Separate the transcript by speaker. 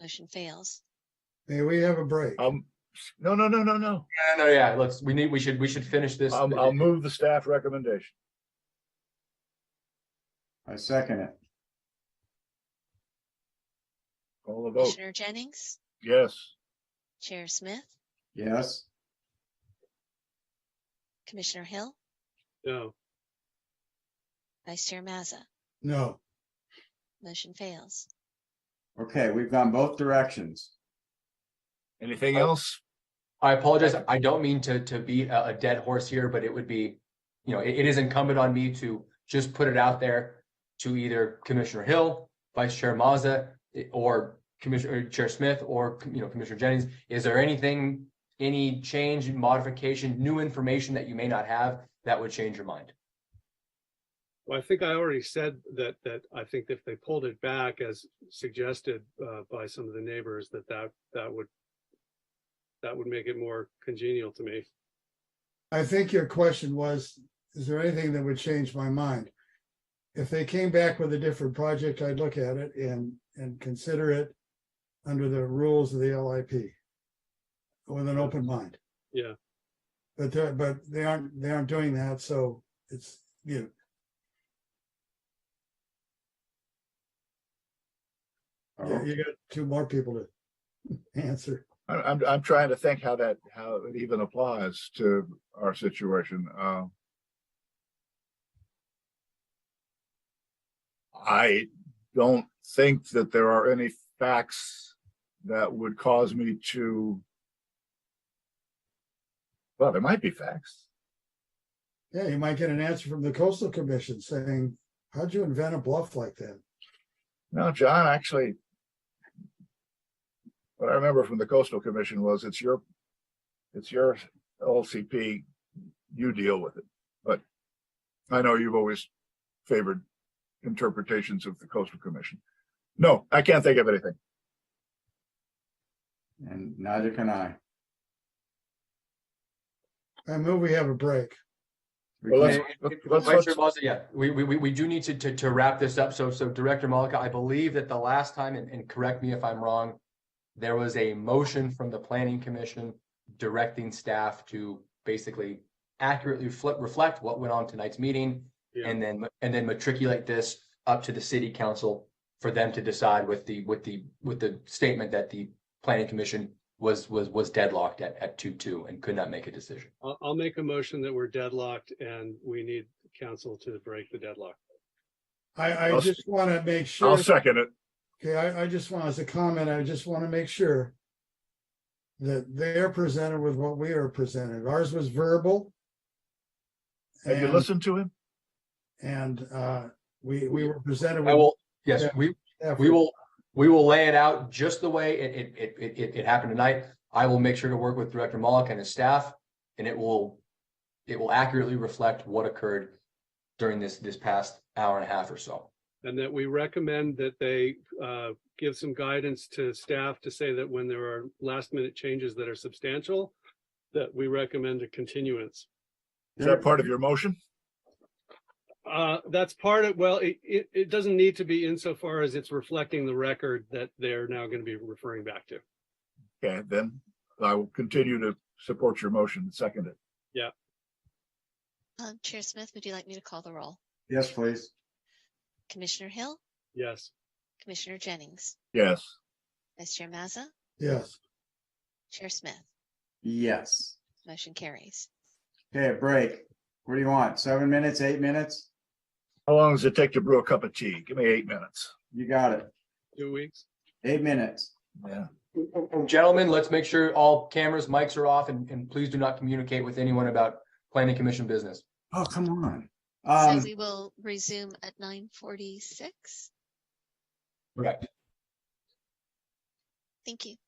Speaker 1: motion fails.
Speaker 2: May we have a break?
Speaker 3: Um, no, no, no, no, no.
Speaker 4: No, no, yeah, let's, we need, we should, we should finish this.
Speaker 3: I'll, I'll move the staff recommendation.
Speaker 5: I second it.
Speaker 3: Call the vote.
Speaker 1: Commissioner Jennings,
Speaker 3: Yes.
Speaker 1: Chair Smith,
Speaker 5: Yes,
Speaker 1: Commissioner Hill,
Speaker 6: no,
Speaker 1: Vice Chair Mazza.
Speaker 2: No,
Speaker 1: Motion fails.
Speaker 5: okay, we've gone both directions.
Speaker 3: Anything else?
Speaker 4: I apologize. I don't mean to, to beat a, a dead horse here, but it would be, you know, it, it is incumbent on me to just put it out there to either Commissioner Hill, Vice Chair Mazza, i- or Commissioner or Chair Smith, or, you know, Commissioner Jennings. Is there anything, any change, modification, new information that you may not have that would change your mind?
Speaker 6: well, I think I already said that, that I think if they pulled it back as suggested, uh, by some of the neighbors, that that, that would. That would make it more congenial to me.
Speaker 2: I think your question was, is there anything that would change my mind? If they came back with a different project, I'd look at it and, and consider it under the rules of the LIP with an open mind.
Speaker 6: Yeah.
Speaker 2: But, they're- but they aren't, they aren't doing that, so it's, you. You
Speaker 5: Oh,
Speaker 2: you got two more people to answer.
Speaker 3: I'm, I'm, I'm trying to think how that, how it even applies to our situation. Uh, I don't think that there are any facts that would cause me to. Well, there might be facts.
Speaker 2: Yeah, you might get an answer from the coastal commission saying, how'd you invent a bluff like that?
Speaker 3: No, John, actually. What I remember from the coastal commission was it's your, it's your LCP, you deal with it, but. I know you've always favored interpretations of the coastal commission. No, I can't think of anything.
Speaker 5: And neither can I.
Speaker 2: I move we have a break.
Speaker 5: We
Speaker 3: Well, let's-
Speaker 5: can't-
Speaker 3: let's-
Speaker 4: Vice
Speaker 3: let's-
Speaker 4: Chair
Speaker 3: let's-
Speaker 4: Mazza, Yeah, we, we, we, we do need to, to, to wrap this up. So, so Director Malika, I believe that the last time, and, and correct me if I'm wrong, there was a motion from the planning commission directing staff to basically accurately reflect, reflect what went on tonight's meeting
Speaker 6: Yeah.
Speaker 4: and then, and then matriculate this up to the city council for them to decide with the, with the, with the statement that the planning commission was, was, was deadlocked at, at two, two and could not make a decision.
Speaker 6: I'll, I'll make a motion that we're deadlocked and we need council to break the deadlock.
Speaker 2: I, I
Speaker 3: I'll-
Speaker 2: just want to make
Speaker 3: I'll
Speaker 2: sure,
Speaker 3: second it.
Speaker 2: okay, I, I just want, as a comment, I just want to make sure that they're presented with what we are presented. Ours was verbal.
Speaker 3: Have you
Speaker 2: and-
Speaker 3: listened to him?
Speaker 2: And, uh, we, we were presented with.
Speaker 4: I will, yes,
Speaker 2: Yeah.
Speaker 4: we,
Speaker 2: effort.
Speaker 4: We will, we will lay it out just the way it, it, it, it, it, it happened tonight. I will make sure to work with Director Mullock and his staff, and it will, it will accurately reflect what occurred during this, this past hour and a half or so.
Speaker 6: And that we recommend that they uh, give some guidance to staff to say that when there are last minute changes that are substantial, that we recommend a continuance.
Speaker 3: Is that part of your motion?
Speaker 6: Uh, That's part of, well, it, it, it doesn't need to be insofar as it's reflecting the record that they're now going to be referring back to.
Speaker 3: Okay, then I will continue to support your motion and second it.
Speaker 1: Um, Chair Smith, would you like me to call the roll?
Speaker 5: Yes, please.
Speaker 1: Commissioner Hill,
Speaker 6: Yes,
Speaker 1: Commissioner Jennings,
Speaker 3: Yes.
Speaker 1: Vice Chair Mazza,
Speaker 2: Yes.
Speaker 1: Chair Smith.
Speaker 5: Yes.
Speaker 1: Motion carries.
Speaker 5: Okay, a break. What do you want? Seven minutes, eight minutes?
Speaker 3: How long does it take to brew a cup of tea? Give me eight minutes.
Speaker 5: You got it.
Speaker 6: two weeks.
Speaker 5: Eight minutes.
Speaker 3: Yeah.
Speaker 4: And gentlemen, let's make sure all cameras, mics are off, and, and please do not communicate with anyone about planning commission business.
Speaker 5: Oh, come on.
Speaker 1: So
Speaker 5: Um,
Speaker 1: we will resume at nine forty-six.
Speaker 4: Correct.
Speaker 1: Thank you.